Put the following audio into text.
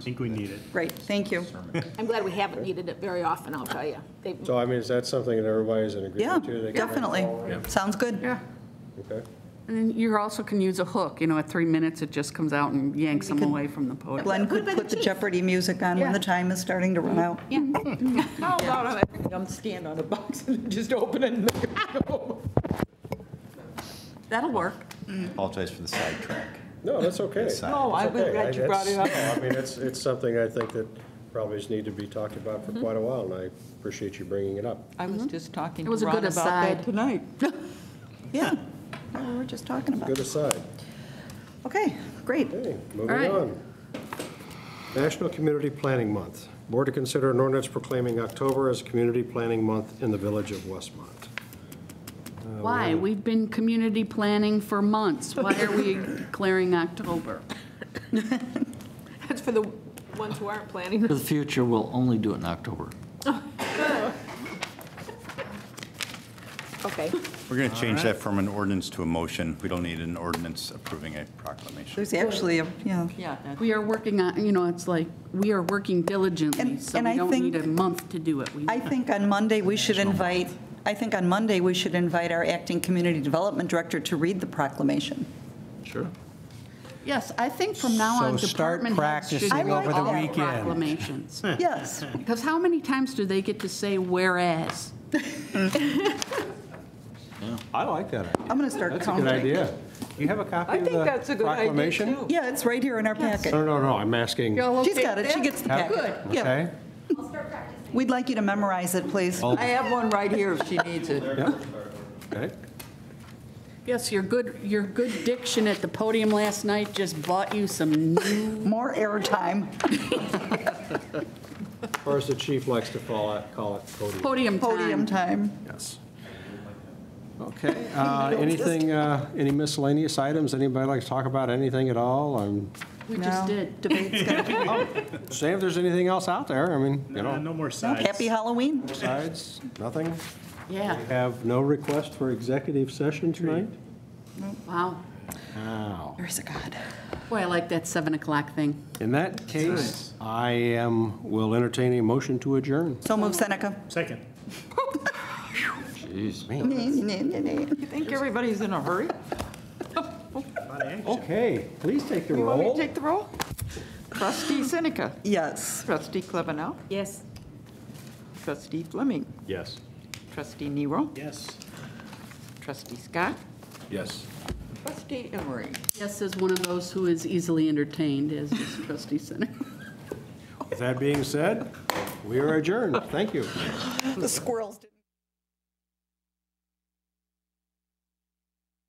think we need it. Great, thank you. I'm glad we haven't needed it very often, I'll tell you. They- So I mean, is that something that everybody's in Yeah, agreement to? They can- definitely. Sounds good. Yeah. Okay. And then you also can use a hook, you know, at three minutes, it just comes out and yanks them away from the podium. Glenn could put the Jeopardy music on when the time is starting to run out. How about I I'm stand on a box and just open it and look at it That'll work. Apologize for the sidetrack. No, that's okay. uh, Side- No, I was Okay, glad you brought it up. that's- no, I mean, it's, it's something I think that probably just need to be talked about for quite a while, and I appreciate you bringing it up. I Mm-hmm. was just talking It to was a Ron good about aside. that tonight. Yeah, Yeah, we were just talking about. Good it. aside. Okay, great. Okay, All moving right. on. National Community Planning Month. Board to consider an ordinance proclaiming October as Community Planning Month in the Village of Westmont. Oh, Why? We've been community planning for months. Why are we declaring October? That's for the ones who aren't planning. For the future, we'll only do it in October. Okay. We're going to change that from an ordinance to a motion. We don't need an ordinance approving a proclamation. There's actually, a yeah. Yeah, that- We are working on, you know, it's like, we are working diligently, And- so and we I don't need think- a month to do it. We- I think on Monday, we should invite, I think on Monday, we should invite our acting community development director to read the proclamation. Sure. Yes, I think from now So on, start department heads should practicing do over the all weekend. proclamations. Yes, Because how many times do they get to say whereas? I like that idea. I'm going to start That's a good counting. idea. Do you have a copy I of think that's a the good idea, proclamation? too. Yeah, it's right here in our packet. No, no, no, I'm asking, She's got it, she gets the Have- packet. Yeah. Okay. We'd like you to memorize it, please. Oh. I have one right here if she needs it. Yeah. Okay. Yes, your good, your good diction at the podium last night just bought you some new. More airtime. or as the chief likes to call it, call it podium. Podium Podium time. time. Yes. Okay, uh, anything, uh, any miscellaneous items? Anybody like to talk about anything at all? I'm We just No. did. Debate's gonna be- Say if there's anything else out there, I mean, you Uh, know, No more sides. Happy Halloween. sides, nothing. Yeah, We Have no request for executive session tonight? wow. Wow. There's a God. Boy, I like that 7 o'clock thing. In that case, I am, will entertain a motion to adjourn. So move Seneca. Second. Nay, nay, nay, nay. You think everybody's in a hurry? Okay, please take the You want me to roll. take the roll? Trustee Seneca, Yes. trustee Klebanow, Yes. trustee Fleming, Yes. trustee Nero, Yes. trustee Scott, Yes. trustee Emery. Yes, is one of those who is easily entertained, as is trustee Center. With that being said, we are adjourned. Thank you. The squirrels did.